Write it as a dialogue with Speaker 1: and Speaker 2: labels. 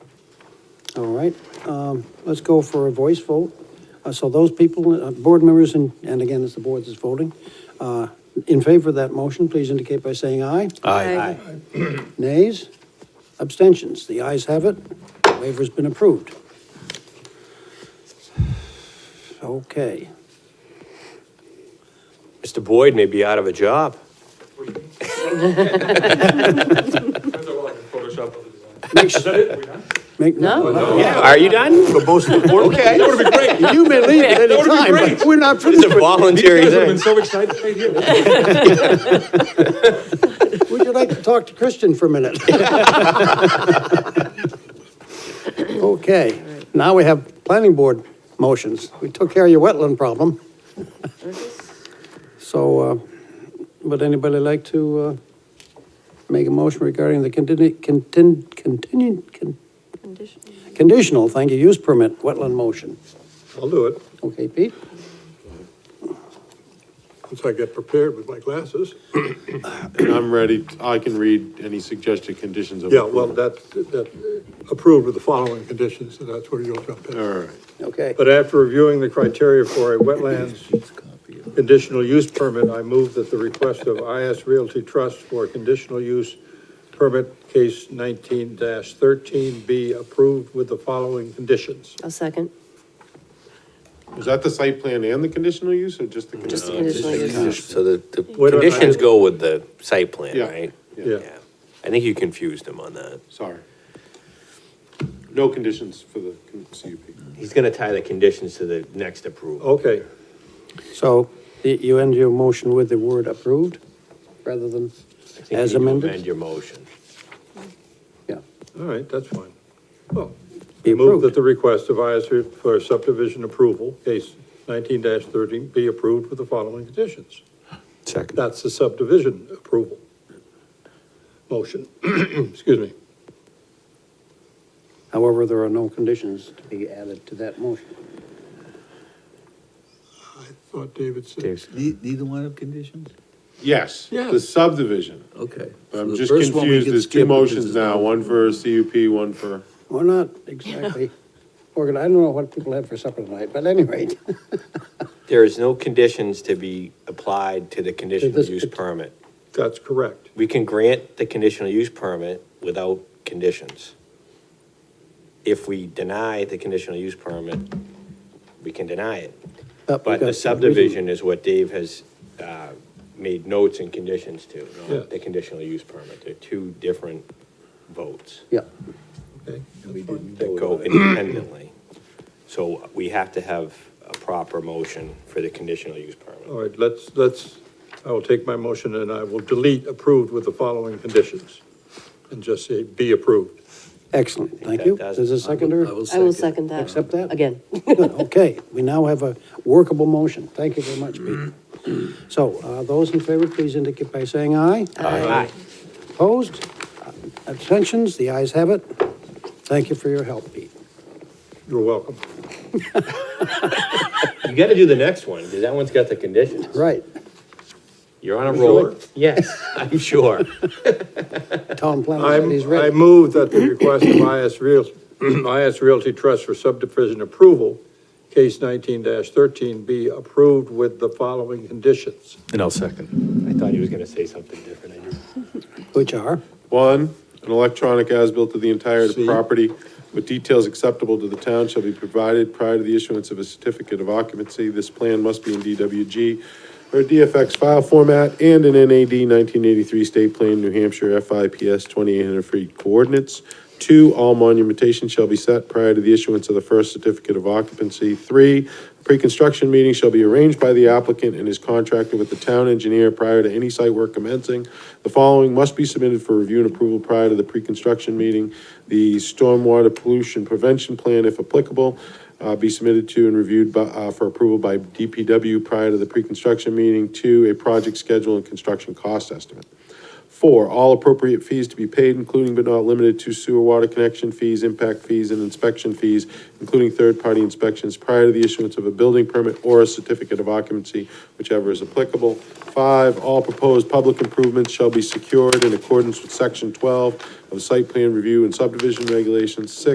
Speaker 1: All right, um, let's go for a voice vote. Uh, So those people, uh, board members, and, and again, it's the board that's voting, uh, in favor of that motion, please indicate by saying aye.
Speaker 2: Aye.
Speaker 1: Nays? Abstentions? The ayes have it. Waiver's been approved. Okay.
Speaker 2: Mr. Boyd may be out of a job.
Speaker 3: Depends on what I can Photoshop other design.
Speaker 1: Make
Speaker 3: Is that it? We done?
Speaker 1: Make,
Speaker 4: No.
Speaker 2: Are you done? For both of the board? Okay.
Speaker 3: That would've been great. You
Speaker 1: you may leave at any
Speaker 3: That would've
Speaker 1: time,
Speaker 3: been
Speaker 1: but
Speaker 3: great.
Speaker 1: we're not
Speaker 2: It's a
Speaker 1: finished.
Speaker 2: voluntary
Speaker 3: guys would've been
Speaker 2: thing.
Speaker 3: so excited right here.
Speaker 1: Would you like to talk to Christian for a minute? Okay, now we have planning board motions. We took care of your wetland problem. So, uh, would anybody like to uh, make a motion regarding the contin- contin- continu- con-
Speaker 4: Condition.
Speaker 1: conditional, thank you, use permit, wetland motion?
Speaker 5: I'll do it,
Speaker 1: Okay, Pete?
Speaker 5: once I get prepared with my glasses.
Speaker 6: And I'm ready, I can read any suggested conditions of
Speaker 5: Yeah, well,
Speaker 6: approval.
Speaker 5: that's, that, approved with the following conditions, and that's where you'll jump
Speaker 6: All
Speaker 5: in.
Speaker 6: right,
Speaker 1: Okay.
Speaker 5: But after reviewing the criteria for a wetlands conditional use permit, I move that the request of IS Realty Trust for a conditional use permit case nineteen thirteen be approved with the following conditions.
Speaker 4: I'll second.
Speaker 6: was that the site plan and the conditional use or just the?
Speaker 4: Just the
Speaker 6: conditional?
Speaker 4: conditional use.
Speaker 2: So the, the
Speaker 5: Wait a minute.
Speaker 2: conditions go with the site plan,
Speaker 6: Yeah.
Speaker 2: right?
Speaker 5: Yeah.
Speaker 2: I think you confused him on that.
Speaker 6: Sorry. No conditions for the con- CUP.
Speaker 2: He's gonna tie the conditions to the next approval.
Speaker 5: Okay,
Speaker 1: So y- you end your motion with the word approved rather than
Speaker 2: I think
Speaker 1: as
Speaker 2: you need to
Speaker 1: amended?
Speaker 2: Amend your motion.
Speaker 1: Yeah.
Speaker 5: all right, that's fine. Well,
Speaker 1: Be
Speaker 5: Move that
Speaker 1: approved.
Speaker 5: the request of ISR for subdivision approval, case nineteen thirteen, be approved with the following conditions.
Speaker 2: Second.
Speaker 5: That's the subdivision approval. Motion, excuse me.
Speaker 1: However, there are no conditions to be added to that motion.
Speaker 5: I thought David said.
Speaker 7: Ne- Neither one of conditions?
Speaker 6: Yes,
Speaker 5: Yeah.
Speaker 6: the subdivision.
Speaker 7: Okay. So
Speaker 6: I'm
Speaker 7: the
Speaker 6: just
Speaker 7: first one we
Speaker 6: confused,
Speaker 7: can
Speaker 6: there's
Speaker 7: skip
Speaker 6: two
Speaker 7: because
Speaker 6: motions
Speaker 7: it's
Speaker 6: now,
Speaker 7: not-
Speaker 6: one for CUP, one for,
Speaker 1: We're not exactly organ, I don't know what people had for supper tonight, but anyway,
Speaker 2: There is no conditions to be applied to the conditional
Speaker 1: this
Speaker 2: use
Speaker 1: partic-
Speaker 2: permit.
Speaker 5: That's correct.
Speaker 2: We can grant the conditional use permit without conditions. If we deny the conditional use permit, we can deny it. But the subdivision is what Dave has uh, made notes and conditions to,
Speaker 5: Yeah.
Speaker 2: not the conditional use permit. They're two different votes
Speaker 1: Yeah,
Speaker 5: Okay,
Speaker 7: We didn't
Speaker 2: that
Speaker 7: vote
Speaker 2: go
Speaker 7: on it.
Speaker 2: independently. So we have to have a proper motion for the conditional use permit.
Speaker 5: all right, let's, let's, I will take my motion and I will delete approved with the following conditions. And just say be approved.
Speaker 1: excellent, thank
Speaker 2: that
Speaker 1: you.
Speaker 2: does-
Speaker 1: There's a seconder?
Speaker 4: I will second that.
Speaker 1: Accept that?
Speaker 4: Again.
Speaker 1: Good, okay, we now have a workable motion. Thank you very much, Pete.
Speaker 2: Mm-hmm.
Speaker 1: So, uh, those in favor, please indicate by saying aye.
Speaker 2: Aye.
Speaker 1: Opposed? Uh, Abstentions? The ayes have it. Thank you for your help, Pete.
Speaker 5: You're welcome.
Speaker 2: You gotta do the next one, because that one's got the conditions.
Speaker 1: Right,
Speaker 2: You're on a
Speaker 5: sure?
Speaker 2: roll. Yes, I'm sure.
Speaker 1: Tom
Speaker 5: I,
Speaker 1: Planner said he's
Speaker 5: I
Speaker 1: ready.
Speaker 5: move that the request of IS Real, IS Realty Trust for subdivision approval, case nineteen thirteen, be approved with the following conditions.
Speaker 7: And I'll second.
Speaker 2: I thought he was gonna say something different. I knew-
Speaker 1: Which are?
Speaker 6: one, an electronic as-built of the entire
Speaker 5: See?
Speaker 6: property with details acceptable to the town shall be provided prior to the issuance of a certificate of occupancy. This plan must be in DWG or DFX file format and in NAD nineteen eighty-three State Plan, New Hampshire, FIPS twenty-eight hundred feet coordinates. Two, all monumentation shall be set prior to the issuance of the first certificate of occupancy. Three, pre-construction meeting shall be arranged by the applicant and his contractor with the town engineer prior to any site work commencing. The following must be submitted for review and approval prior to the pre-construction meeting. The stormwater pollution prevention plan, if applicable, uh, be submitted to and reviewed by, uh, for approval by DPW prior to the pre-construction meeting. Two, a project schedule and construction cost estimate. Four, all appropriate fees to be paid, including but not limited to sewer water connection fees, impact fees, and inspection fees, including third-party inspections prior to the issuance of a building permit or a certificate of occupancy, whichever is applicable. Five, all proposed public improvements shall be secured in accordance with section twelve of the site plan review and subdivision regulations. Six,